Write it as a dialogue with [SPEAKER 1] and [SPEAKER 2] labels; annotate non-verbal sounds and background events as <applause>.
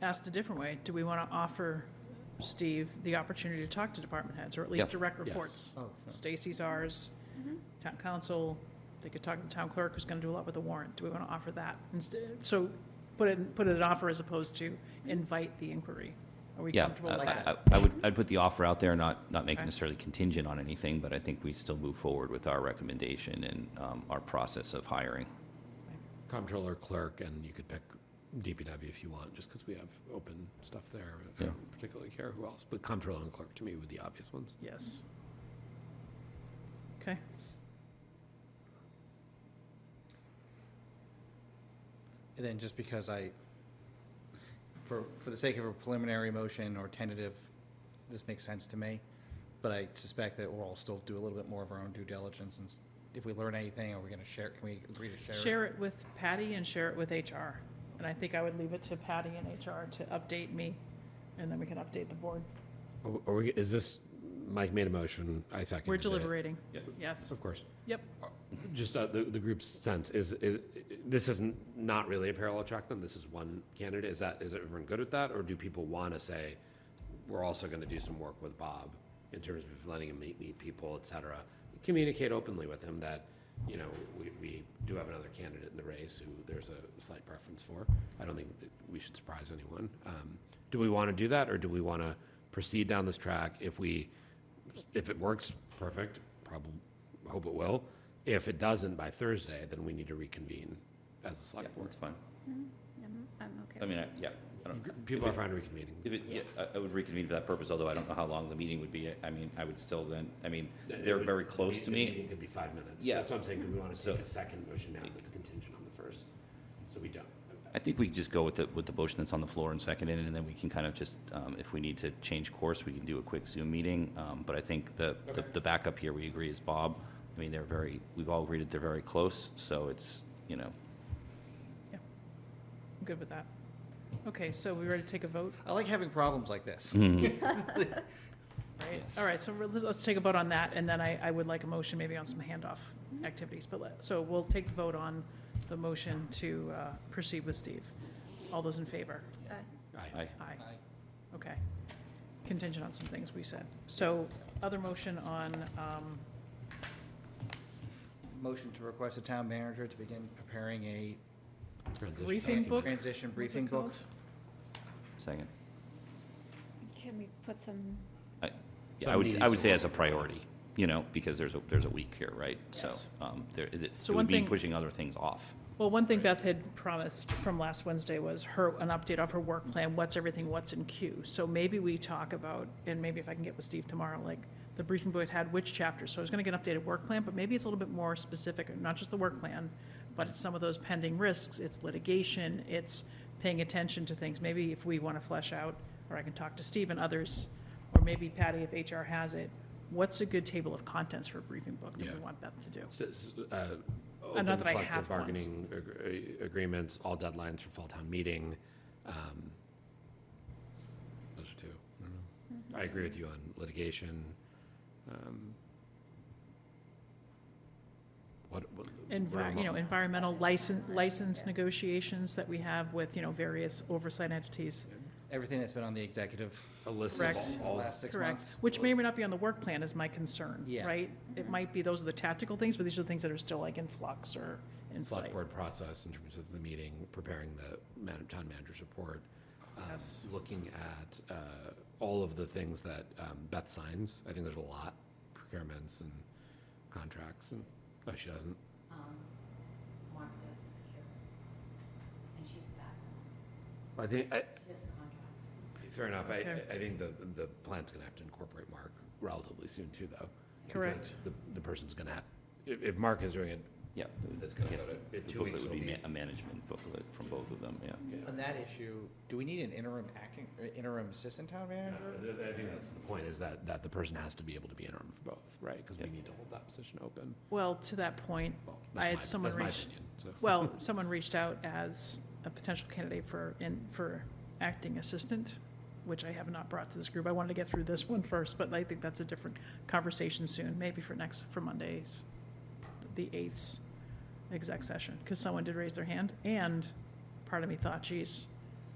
[SPEAKER 1] asked a different way, do we want to offer Steve the opportunity to talk to department heads, or at least
[SPEAKER 2] Yeah.
[SPEAKER 1] direct
[SPEAKER 2] Yes.
[SPEAKER 1] reports? Stacy's ours, town council, they could talk to the town clerk, who's going to do a lot with the warrant. Do we want to offer that instead? So put it, put it an offer as opposed to invite the inquiry. Are we
[SPEAKER 2] Yeah, uh,
[SPEAKER 1] comfortable
[SPEAKER 2] I-
[SPEAKER 1] with that?
[SPEAKER 2] I I would, I'd put the offer out there, not, not make it
[SPEAKER 1] Okay.
[SPEAKER 2] necessarily contingent on anything, but I think we still move forward with our recommendation and um, our process of hiring.
[SPEAKER 3] Comptroller clerk, and you could pick DPW if you want, just because we have open stuff there. I
[SPEAKER 2] Yeah.
[SPEAKER 3] don't particularly care who else, but comptroller and clerk to me were the obvious ones.
[SPEAKER 1] Yes. Okay.
[SPEAKER 4] And then just because I, for, for the sake of a preliminary motion or tentative, this makes sense to me, but I suspect that we'll all still do a little bit more of our own due diligence, and s- if we learn anything, are we gonna share, can we agree to share? it?
[SPEAKER 1] Share it with Patty and share it with HR. And I think I would leave it to Patty and HR to update me, and then we can update the board.
[SPEAKER 3] Are- Are we, is this, Mike made a motion, I seconded it.
[SPEAKER 1] We're deliberating,
[SPEAKER 2] Yeah.
[SPEAKER 1] yes.
[SPEAKER 3] Of course.
[SPEAKER 1] Yep,
[SPEAKER 3] Just uh, the, the group's sense, is, is, this isn't, not really a parallel track then, this is one candidate, is that, is everyone good with that? Or do people want to say, we're also going to do some work with Bob in terms of letting him meet, meet people, et cetera? Communicate openly with him that, you know, we, we do have another candidate in the race who there's a slight preference for. I don't think that we should surprise anyone. Um, Do we want to do that, or do we want to proceed down this track if we, if it works, perfect, probably, hope it will. If it doesn't by Thursday, then we need to reconvene as a
[SPEAKER 2] Yeah,
[SPEAKER 3] select board.
[SPEAKER 2] that's fine.
[SPEAKER 5] I'm, I'm okay.
[SPEAKER 2] I mean, I- yeah. I don't-
[SPEAKER 3] People are
[SPEAKER 2] if it-
[SPEAKER 3] fine reconvening.
[SPEAKER 2] If it, yeah, I- I would reconvene for that purpose, although I don't know how long the meeting would be. I mean, I would still then, I mean, they're very close to
[SPEAKER 3] The
[SPEAKER 2] me.
[SPEAKER 3] meeting could be five minutes.
[SPEAKER 2] Yeah.
[SPEAKER 3] That's what I'm saying, do we want to
[SPEAKER 2] So-
[SPEAKER 3] take a second motion now that's contingent on the first? So we don't.
[SPEAKER 2] I think we could just go with the, with the motion that's on the floor and second it, and then we can kind of just, um, if we need to change course, we can do a quick Zoom meeting. Um, But I think the, the-
[SPEAKER 3] Okay.
[SPEAKER 2] the backup here, we agree, is Bob. I mean, they're very, we've all agreed that they're very close, so it's, you know,
[SPEAKER 1] I'm good with that. Okay, so we ready to take a vote,
[SPEAKER 4] I like having problems <laughs> like this.
[SPEAKER 5] <laughs>
[SPEAKER 1] right?
[SPEAKER 2] Yes.
[SPEAKER 1] All right, so we'll- let's, let's take a vote on that, and then I, I would like a motion maybe on some handoff activities, but let, so we'll take the vote on the motion to uh, proceed with Steve. All those in favor?
[SPEAKER 5] Uh,
[SPEAKER 2] I,
[SPEAKER 1] Aye.
[SPEAKER 4] Aye.
[SPEAKER 1] Okay. Contingent on some things we said. So other motion on, um,
[SPEAKER 4] Motion to request the town manager to begin preparing a uh,
[SPEAKER 3] Transition
[SPEAKER 1] briefing
[SPEAKER 3] document.
[SPEAKER 1] book?
[SPEAKER 4] transition
[SPEAKER 1] what's it
[SPEAKER 4] briefing book.
[SPEAKER 1] called?
[SPEAKER 2] second.
[SPEAKER 5] Can we put some,
[SPEAKER 2] I- yeah, I would,
[SPEAKER 3] Some
[SPEAKER 2] I would
[SPEAKER 3] meetings
[SPEAKER 2] say as a priority, you know, because there's a, there's a week here, right? So
[SPEAKER 1] Yes.
[SPEAKER 2] um, there, it it
[SPEAKER 1] So one
[SPEAKER 2] would be
[SPEAKER 1] thing-
[SPEAKER 2] pushing other things off.
[SPEAKER 1] Well, one thing Beth had promised from last Wednesday was her, an update of her work plan, what's everything, what's in queue. So maybe we talk about, and maybe if I can get with Steve tomorrow, like, the briefing board had which chapters. So I was gonna get an updated work plan, but maybe it's a little bit more specific, not just the work plan, but it's some of those pending risks, it's litigation, it's paying attention to things. Maybe if we wanna flesh out, or I can talk to Steve and others, or maybe Patty if HR has it, what's a good table of contents for a briefing book that we
[SPEAKER 3] Yeah.
[SPEAKER 1] want Beth to do?
[SPEAKER 3] S- s- uh,
[SPEAKER 1] Uh,
[SPEAKER 3] Open
[SPEAKER 1] not that I
[SPEAKER 3] collective
[SPEAKER 1] have one.
[SPEAKER 3] bargaining ag- agreements, all deadlines for fall town meeting. um, Those are two. I don't
[SPEAKER 1] Mm-hmm.
[SPEAKER 3] know. I agree with you on litigation. um, What? what- what are
[SPEAKER 1] Envi- you know,
[SPEAKER 3] mo-
[SPEAKER 1] environmental license, license negotiations that we have with, you know, various oversight entities.
[SPEAKER 4] Everything that's been on the executive
[SPEAKER 3] A list of
[SPEAKER 1] Correct.
[SPEAKER 3] all- all,
[SPEAKER 4] last six
[SPEAKER 1] Correct.
[SPEAKER 4] months.
[SPEAKER 1] Which may or may not be on the work plan is my concern,
[SPEAKER 4] Yeah. Mm-hmm.
[SPEAKER 1] right? It might be, those are the tactical things, but these are the things that are still like in flux or in
[SPEAKER 3] select
[SPEAKER 1] flight.
[SPEAKER 3] board process in terms of the meeting, preparing the man- town manager's report. um,
[SPEAKER 1] Yes.
[SPEAKER 3] Looking at uh, all of the things that um, Beth signs. I think there's a lot, procurements and contracts and, oh, she doesn't.
[SPEAKER 6] um, Mark does the procurements, and she's the back,
[SPEAKER 3] I think, I-
[SPEAKER 6] she does the contracts.
[SPEAKER 3] fair enough. I,
[SPEAKER 1] Okay.
[SPEAKER 3] I think the, the plan's going to have to incorporate Mark relatively soon too, though. because
[SPEAKER 1] Correct.
[SPEAKER 3] The, the person's going to, have if, if Mark is doing it,
[SPEAKER 2] Yeah.
[SPEAKER 3] that's going
[SPEAKER 2] I
[SPEAKER 3] to
[SPEAKER 2] guess
[SPEAKER 3] go to,
[SPEAKER 2] the
[SPEAKER 3] in two
[SPEAKER 2] booklet
[SPEAKER 3] weeks
[SPEAKER 2] would
[SPEAKER 3] will
[SPEAKER 2] ma-
[SPEAKER 3] be.
[SPEAKER 2] A management booklet from both of them, yeah.
[SPEAKER 3] yeah.
[SPEAKER 4] On that issue, do we need an interim acting, or interim assistant town
[SPEAKER 3] No,
[SPEAKER 4] manager?
[SPEAKER 3] th- th- I think that's the point, is that, that the person has to be able to be interim for both, right? Because we
[SPEAKER 2] Yeah.
[SPEAKER 3] need to hold that position open.
[SPEAKER 1] Well, to that point,
[SPEAKER 3] Well,
[SPEAKER 1] I had
[SPEAKER 3] that's my-
[SPEAKER 1] someone
[SPEAKER 3] that's my
[SPEAKER 1] reach-
[SPEAKER 3] opinion, so.
[SPEAKER 1] well, someone reached out as a potential candidate for, in, for acting assistant, which I have not brought to this group. I wanted to get through this one first, but I think that's a different conversation soon, maybe for next, for Mondays, the eighth exec session, because someone did raise their hand, and part of me thought, geez,